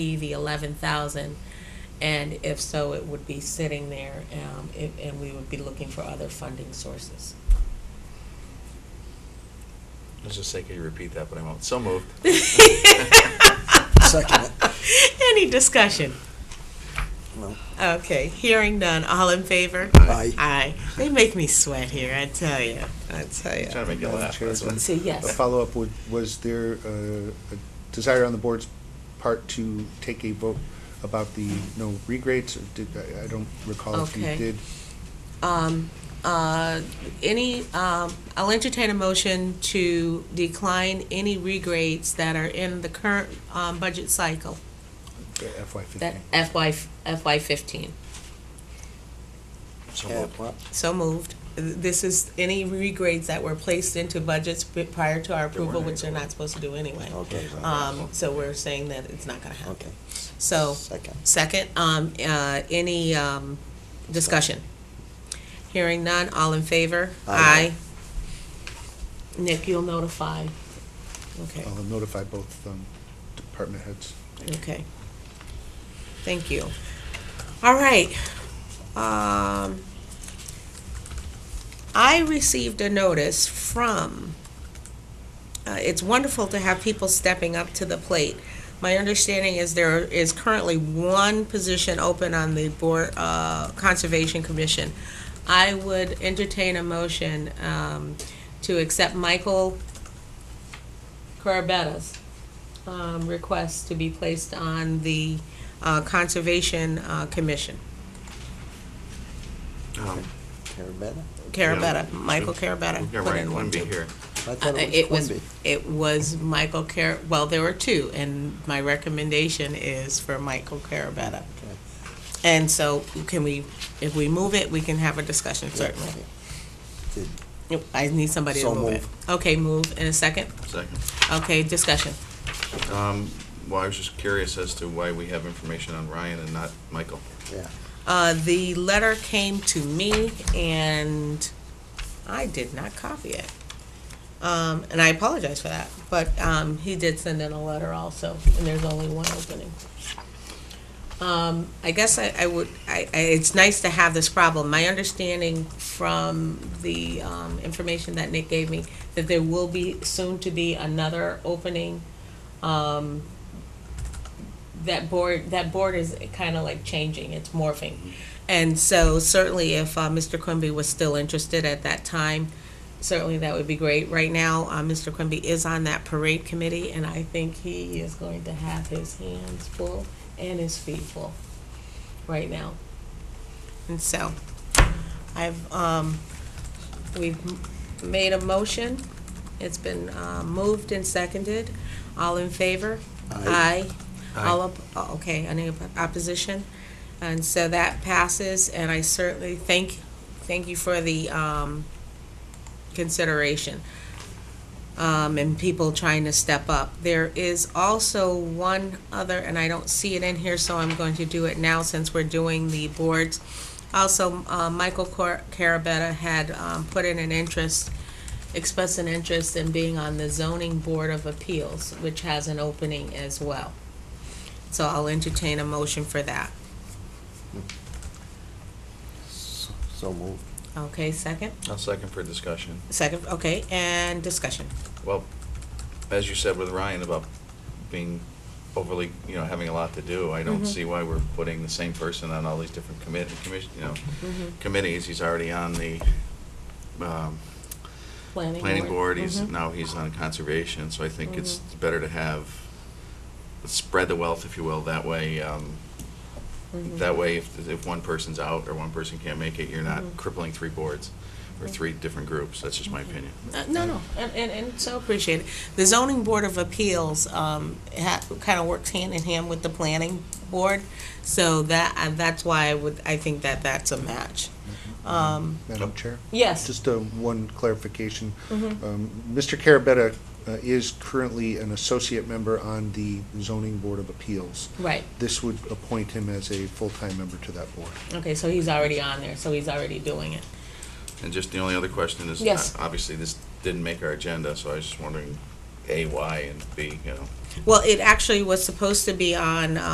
be the eleven thousand? And if so, it would be sitting there, um, it- and we would be looking for other funding sources. Let's just say, could you repeat that, but I won't. So moved. Oh, Second it. Any discussion? No. Okay, hearing none, all in favor? Aye. Aye. They make me sweat here, I tell you, I tell you. Trying to make you laugh, that's what. So A yes, follow-up, would- was there uh, a desire on the board's part to take a vote about the no regrades? Or did, I- I don't recall if you Okay. did. um, uh, any, um, I'll entertain a motion to decline any regrades that are in the current, um, budget cycle, the FY that fifteen. FY, FY fifteen. So Yeah, moved. well, So moved. This is any regrades that were placed into budgets b- prior to our There weren't approval, which they're any. not supposed to do anyway. okay, Um, so we're saying that it's not gonna okay. happen. So, Second. second, um, uh, any, um, discussion? Hearing none, all in favor? Aye. Aye. Nick, you'll notify. Okay, I'll notify both um, department heads. okay. Thank you. All right. Um, I received a notice from, uh, it's wonderful to have people stepping up to the plate. My understanding is there is currently one position open on the Board, uh, Conservation Commission. I would entertain a motion, um, to accept Michael Carabetta's, um, request to be placed on the, uh, Conservation, uh, Commission. Um, Carabetta? Carabetta, Yeah. Michael Carabetta. You're put right, in one, wouldn't be too. here. I Uh, thought It it was was, Quimby. it was Michael Car, well, there were two, and my recommendation is for Michael Carabetta. Okay. And so can we, if we move it, we can have a discussion, certainly. Did- Yep, I need somebody to So move it. move. Okay, move in a second. Second. Okay, discussion. Um, Well, I was just curious as to why we have information on Ryan and not Michael. Yeah, Uh, the letter came to me and I did not copy it. Um, and I apologize for that, but, um, he did send in a letter also, and there's only one opening. Um, I guess I, I would, I, I, it's nice to have this problem. My understanding from the, um, information that Nick gave me, that there will be soon to be another opening, um, that board that board is kind of like changing it's morphing and so certainly if uh, mr quimby was still interested at that time certainly that would be great right now uh, mr quimby is on that parade committee and i think he is going to have his hands full and his feet full right now and so i've um, we've m- made a motion it's been uh, moved and seconded all in favor Aye. aye. All up, oh, okay, any op- opposition? And so that passes, and I certainly thank, thank you for the, um, consideration. Um, and people trying to step up. There is also one other, and I don't see it in here, so I'm going to do it now since we're doing the boards. Also, uh, Michael Cor- Carabetta had, um, put in an interest, expressed an interest in being on the zoning board of appeals, which has an opening as well. So I'll entertain a motion for that. so so moved. Okay, second? I'll second for discussion. Second, okay, and discussion. Well, as you said with Ryan about being overly, you know, having a lot to do, I don't Mhm. see why we're putting the same person on all these different committee, commission, you know, committees. He's already on the, um, planning board, Mm-hmm. he's, Mhm. now he's on conservation, so I think it's Mhm. better to have, spread the wealth, if you will, that way, um, Mhm. that way, if, if one person's out or one person can't make it, you're not Mhm. crippling three boards or three different groups, that's just my opinion. Uh, No, no, and, and, and so appreciate it. The zoning board of appeals, um, ha, kind of works hand in hand with the planning board. So that, and that's why I would, I think that that's a match. Mm-hmm. Um, Madam Chair? yes. Just uh, one clarification. Mhm. Um, Mr. Carabetta uh, is currently an associate member on the zoning board of appeals. Right, This would appoint him as a full-time member to that board. okay, so he's already on there, so he's already doing it. And just the only other question is, Yes. uh, obviously, this didn't make our agenda, so I was just wondering, A, why, and B, you know, Well, it actually was supposed to be on,